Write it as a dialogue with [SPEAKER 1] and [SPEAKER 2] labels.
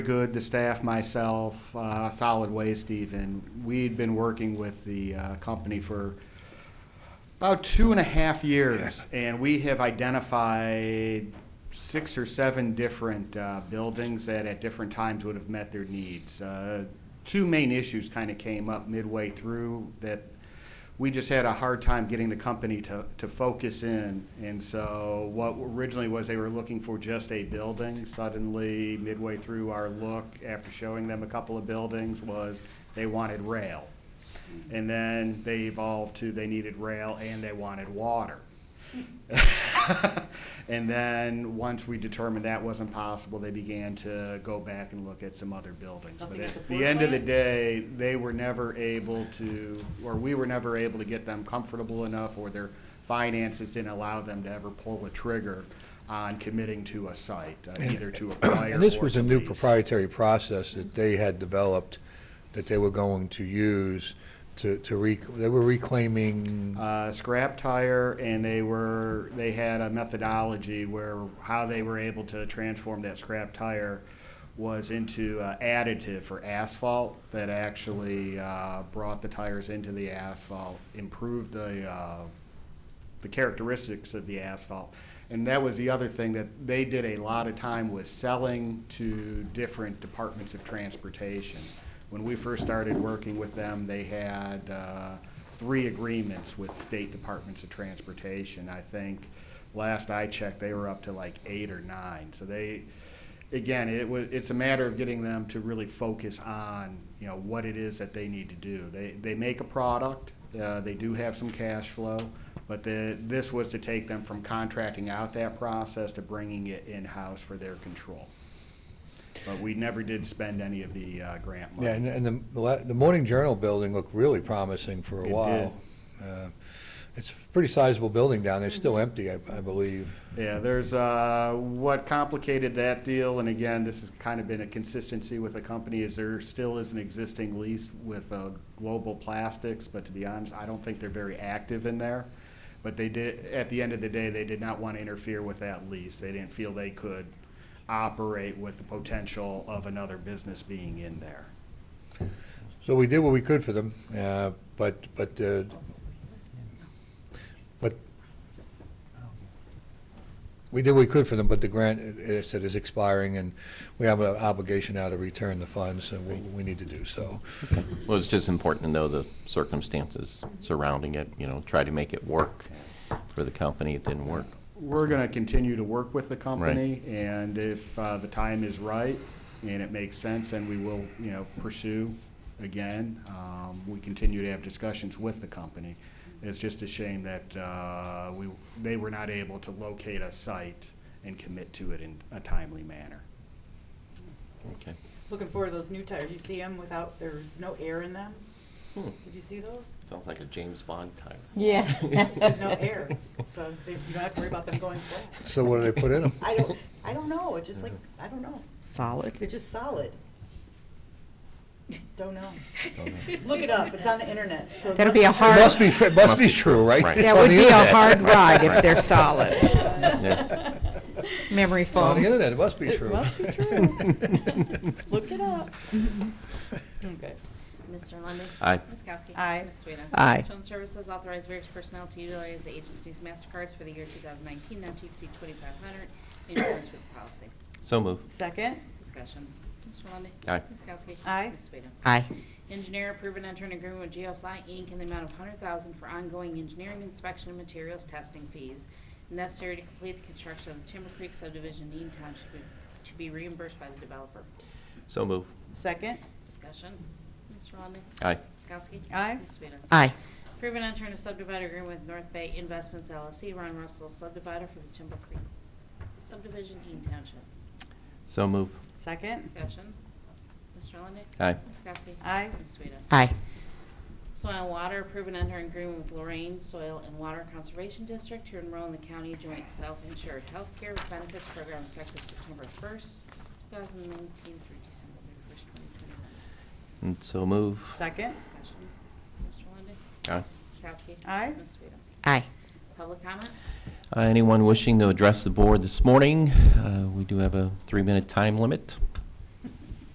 [SPEAKER 1] Good, the staff, myself, uh, Solid Waste even, we'd been working with the uh, company for about two and a half years, and we have identified six or seven different uh, buildings that at different times would have met their needs. Uh, Two main issues kind of came up midway through that we just had a hard time getting the company to, to focus in. And so what originally was they were looking for just a building, suddenly midway through our look, after showing them a couple of buildings, was they wanted rail. And then they evolved to they needed rail and they wanted water. and then once we determined that wasn't possible, they began to go back and look at some other buildings. But
[SPEAKER 2] Nothing at
[SPEAKER 1] at
[SPEAKER 2] the
[SPEAKER 1] the end of the
[SPEAKER 2] floor plan?
[SPEAKER 1] day, they were never able to, or we were never able to get them comfortable enough, or their finances didn't allow them to ever pull a trigger on committing to a site, uh, either to acquire or to
[SPEAKER 3] And this was a new
[SPEAKER 1] lease.
[SPEAKER 3] proprietary process that they had developed, that they were going to use to, to rec, they were reclaiming,
[SPEAKER 1] uh, scrap tire, and they were they had a methodology where how they were able to transform that scrap tire was into uh, additive for asphalt that actually uh, brought the tires into the asphalt, improved the uh, the characteristics of the asphalt. And that was the other thing that they did a lot of time was selling to different departments of transportation. When we first started working with them, they had uh, three agreements with state departments of transportation. I think last I checked, they were up to like eight or nine. So they, again, it was, it's a matter of getting them to really focus on, you know, what it is that they need to do. They, they make a product, uh, they do have some cash flow, but the, this was to take them from contracting out that process to bringing it in-house for their control. But we never did spend any of the, uh, grant money.
[SPEAKER 3] yeah, and, and the- the, la- the Morning Journal building looked really promising for a
[SPEAKER 1] It did.
[SPEAKER 3] while. Uh, It's a pretty sizable building down there, still empty, I, I believe.
[SPEAKER 1] Yeah, there's, uh, what complicated that deal, and again, this has kind of been a consistency with the company, is there still is an existing lease with, uh, Global Plastics, but to be honest, I don't think they're very active in there. But they did, at the end of the day, they did not want to interfere with that lease. They didn't feel they could operate with the potential of another business being in there.
[SPEAKER 3] So we did what we could for them, uh, but, but, uh, but we did what we could for them, but the grant, as I said, is expiring, and we have an obligation now to return the funds, and we, we need to do so.
[SPEAKER 4] Well, it's just important to know the circumstances surrounding it, you know, try to make it work for the company. It didn't work.
[SPEAKER 1] We're going to continue to work with the company, and if uh, the time is right and it makes sense, then we will, you know, pursue again. Um, We continue to have discussions with the company. It's just a shame that uh, we, they were not able to locate a site and commit to it in a timely manner.
[SPEAKER 4] Okay.
[SPEAKER 2] Looking forward to those new tires. You see them without, there's no air in them?
[SPEAKER 4] Hmm.
[SPEAKER 2] Did you see those?
[SPEAKER 4] Sounds like a James Bond tire.
[SPEAKER 5] Yeah.
[SPEAKER 2] There's no air, so they- you don't have to worry about them going flat.
[SPEAKER 3] So what do they put in them?
[SPEAKER 2] I don't, I don't know. It's just like, I don't know.
[SPEAKER 5] Solid.
[SPEAKER 2] It's just solid. Don't know.
[SPEAKER 4] Don't know.
[SPEAKER 2] Look it up. It's on the internet, so. it
[SPEAKER 5] That'll be a
[SPEAKER 2] must-
[SPEAKER 5] hard-
[SPEAKER 3] Must be, it must be true, right?
[SPEAKER 4] Right.
[SPEAKER 3] It's
[SPEAKER 5] That
[SPEAKER 3] on
[SPEAKER 5] would
[SPEAKER 3] the
[SPEAKER 5] be a
[SPEAKER 3] internet.
[SPEAKER 5] hard ride if they're
[SPEAKER 4] Right.
[SPEAKER 5] solid.
[SPEAKER 4] Yeah.
[SPEAKER 5] Memory
[SPEAKER 3] It's on the
[SPEAKER 5] foam.
[SPEAKER 3] internet, it must be
[SPEAKER 2] It
[SPEAKER 3] true.
[SPEAKER 2] must be true. Look it up. Okay.
[SPEAKER 6] Mr. Lundy,
[SPEAKER 4] Aye.
[SPEAKER 6] Ms. Kowski.
[SPEAKER 2] Aye.
[SPEAKER 6] Ms. Swita.
[SPEAKER 5] Aye.
[SPEAKER 6] Children's Services authorized various personnel to utilize the agency's MasterCards for the year 2019, not to exceed 2,500, in accordance with the policy.
[SPEAKER 4] So move.
[SPEAKER 2] Second,
[SPEAKER 6] Discussion. Mr. Lundy,
[SPEAKER 4] Aye.
[SPEAKER 6] Ms. Kowski.
[SPEAKER 2] Aye.
[SPEAKER 6] Ms. Swita.
[SPEAKER 5] Aye.
[SPEAKER 6] Engineer approve and enter an agreement with GSI Inc. in the amount of 100000 for ongoing engineering inspection and materials testing fees necessary to complete the construction of the Timber Creek subdivision in Eaton Township to be reimbursed by the developer.
[SPEAKER 4] So move.
[SPEAKER 2] second,
[SPEAKER 6] Discussion. Mr. Lundy,
[SPEAKER 4] Aye.
[SPEAKER 6] Ms. Kowski.
[SPEAKER 2] Aye.
[SPEAKER 6] Ms. Swita.
[SPEAKER 5] Aye.
[SPEAKER 6] Approve and enter a subdivider agreement with North Bay Investments LLC, Ron Russell, subdivider for the Timber Creek subdivision, Eaton Township.
[SPEAKER 4] So move.
[SPEAKER 2] second,
[SPEAKER 6] Discussion. Mr. Lundey.
[SPEAKER 4] Aye.
[SPEAKER 6] Ms. Kowski.
[SPEAKER 2] Aye.
[SPEAKER 6] Ms. Sueda.
[SPEAKER 5] Aye.
[SPEAKER 6] Soil and Water, approve and enter an agreement with Lorraine Soil and Water Conservation District to enroll in the county joint self-insured healthcare benefits program effective September first, two thousand nineteen through December thirty-first, twenty twenty-one.
[SPEAKER 4] And Mm, so move.
[SPEAKER 2] second,
[SPEAKER 6] Discussion. Mr. Lundey.
[SPEAKER 4] Aye.
[SPEAKER 6] Ms. Kowski.
[SPEAKER 2] Aye.
[SPEAKER 6] Ms. Sueda.
[SPEAKER 5] Aye.
[SPEAKER 6] Public comment?
[SPEAKER 4] Uh, Anyone wishing to address the board this morning? Uh, We do have a three-minute time limit.